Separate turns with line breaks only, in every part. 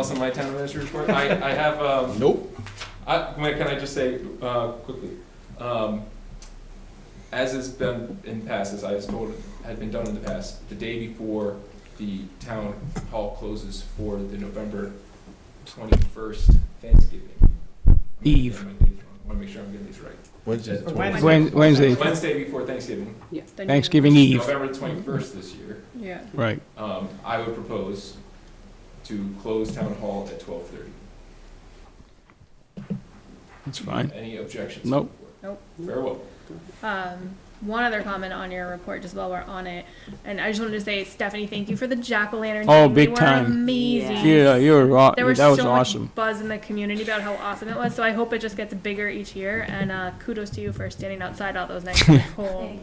else on my town administrator report? I, I have, um,
Nope.
I, wait, can I just say, uh, quickly, um, as has been in past, as I was told, had been done in the past, the day before the town hall closes for the November twenty-first Thanksgiving.
Eve.
I wanna make sure I'm getting these right.
Wednesday.
Wednesday.
Wednesday.
Wen- Wednesday,
Wednesday before Thanksgiving,
Yeah.
Thanksgiving Eve,
November twenty-first this year,
Yeah.
right.
um, I would propose to close town hall at twelve-thirty.
That's fine.
Any objections?
Nope.
Nope.
Very well.
Um, one other comment on your report, just while we're on it, and I just wanted to say, Stephanie, thank you for the jack o' lantern.
Oh, big time.
Amazing.
Yeah, you were, aw-
There was
that was
so
awesome.
much buzz in the community about how awesome it was. So I hope it just gets bigger each year. And uh, kudos to you for standing outside all those nights in the cold.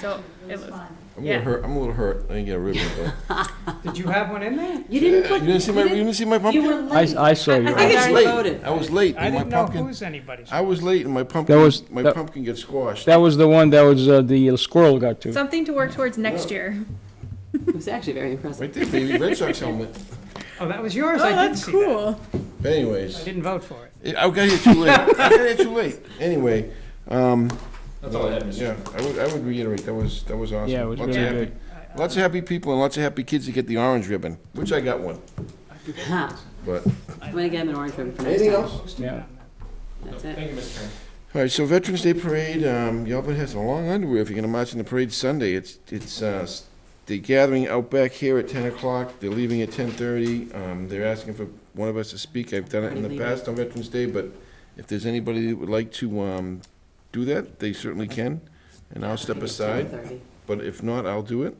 So it was.
I'm a
Yeah.
little hurt. I'm a little hurt. I didn't get a ribbon though.
Did you have one in there?
You
you
didn't put.
didn't see my. You
You,
didn't see my
you
pumpkin.
were
I,
late.
I saw you.
I think
I
it's
was
already
late.
voted.
I was late.
I
and my
didn't know
pumpkin.
whose anybody's.
I was late, and my pumpkin.
was-
my
that-
pumpkin got squashed.
That was the one that was, uh, the squirrel got to.
Something to work towards next year.
It was actually very impressive.
right there, baby. Red Sox helmet.
Oh, that was yours? I didn't see that.
But anyways,
I didn't vote for it.
I got here too late. I got here too late. Anyway, um,
That's all I had, Mr.
yeah, I would, I would reiterate that was that was awesome.
Yeah, it was
lots
really
of happy,
good.
Lots of happy people and lots of happy kids that get the orange ribbon, which I got one.
Huh.
But
I'm gonna get him an orange ribbon for next
anything
time.
else?
Yeah.
That's it.
Thank you, Mr. Chairman.
All right, so Veterans Day Parade, um, y'all better have some long underwear if you're gonna march in the parade Sunday. It's, it's, uh, s- the gathering out back here at ten o'clock, they're leaving at ten thirty. Um, they're asking for one of us to speak. I've done it in the past on Veterans Day, but if there's anybody that would like to, um, do that, they certainly can. And I'll step aside,
10:30.
but if not, I'll do it.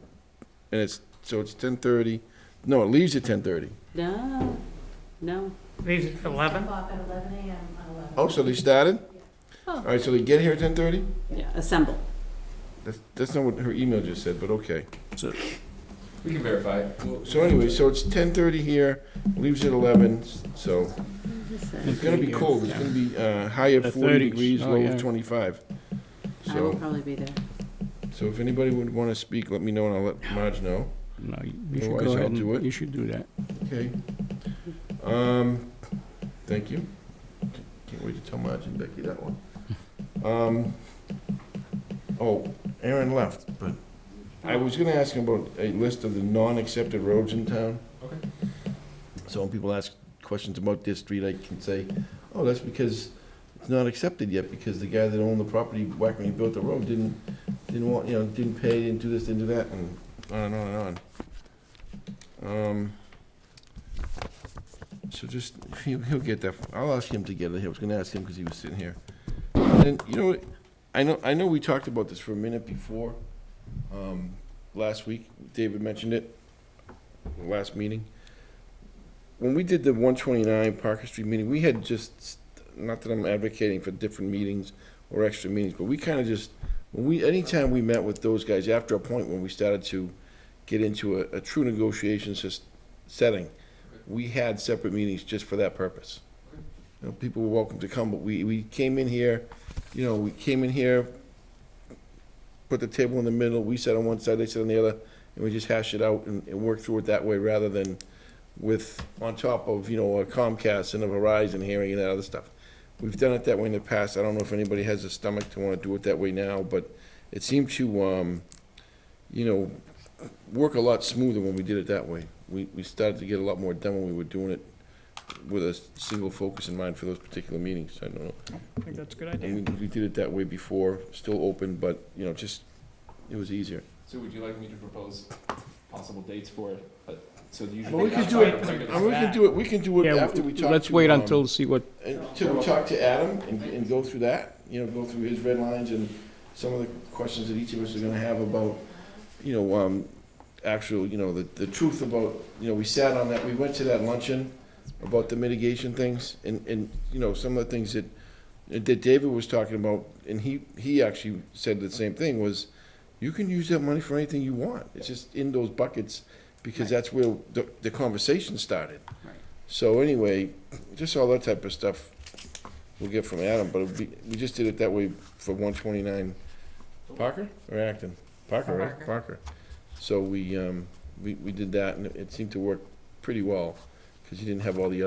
And it's, so it's ten thirty, no, it leaves at ten thirty.
No, no.
Leaves at eleven?
Oh, so they started? All right, so they get here at ten thirty?
Yeah, assemble.
That's, that's not what her email just said, but okay.
We can verify. it. We'll-
So anyway, so it's ten thirty here, leaves at eleven, so it's gonna be cold, it's gonna be, uh, high
The
of forty
30s.
degrees,
Oh,
low
yeah.
of twenty-five.
I will
So,
probably be there.
so if anybody would wanna speak, let me know and I'll let Marge know,
No, you you should
Otherwise,
go
I'll
ahead and,
do it.
you should do that.
okay? Um, thank you. Can't wait to tell Marge and Becky that one. Um, oh, Aaron left, but I was gonna ask him about a list of the non-accepted roads in town.
Okay.
So when people ask questions about this street, I can say, oh, that's because it's not accepted yet, because the guy that owned the property back when he built the road didn't, didn't want, you know, didn't pay, didn't do this, didn't do that, and on and on and on. Um, So just, he'll, he'll get that, I'll ask him to get it, I was gonna ask him because he was sitting here. And, you know, what? I know, I know we talked about this for a minute before, um, last week, David mentioned it, last meeting when we did the one twenty-nine Parker Street meeting, we had just, not that I'm advocating for different meetings or extra meetings, but we kinda just, when we, anytime we met with those guys, after a point when we started to get into a, a true negotiation sys- setting, we had separate meetings just for that purpose. You know, people were welcome to come, but we, we came in here, you know, we came in here, put the table in the middle, we sat on one side, they sat on the other, and we just hashed it out and, and worked through it that way rather than with, on top of, you know, a Comcast and a Verizon hearing and that other stuff. We've done it that way in the past. I don't know if anybody has the stomach to want to do it that way now, but it seemed to, um, you know, work a lot smoother when we did it that way. We, we started to get a lot more done when we were doing it with a single focus in mind for those particular meetings. I don't know.
I think that's a good idea.
And we, we did it that way before, still open, but, you know, just, it was easier.
So would you like me to propose possible dates for it? But- So the usual.
Well, we
could
can
that's
do it,
fine.
and we can do it, we can do it
Yeah,
after we talk
Let's
to,
wait
um,
until, see what,
Until we talk to Adam and, and go through that, you know, go through his red lines and some of the questions that each of us are gonna have about, you know, um, actual, you know, the, the truth about, you know, we sat on that, we went to that luncheon about the mitigation things and, and, you know, some of the things that, that David was talking about, and he, he actually said the same thing, was you can use that money for anything you want. It's just in those buckets, because that's where the, the conversation started.
Right.
So anyway, just all that type of stuff we'll get from Adam, but it'd be- we just did it that way for one twenty-nine Parker or Acton? Parker, right? Parker. So we, um, we, we did that, and it seemed to work pretty well, because you didn't have all the other,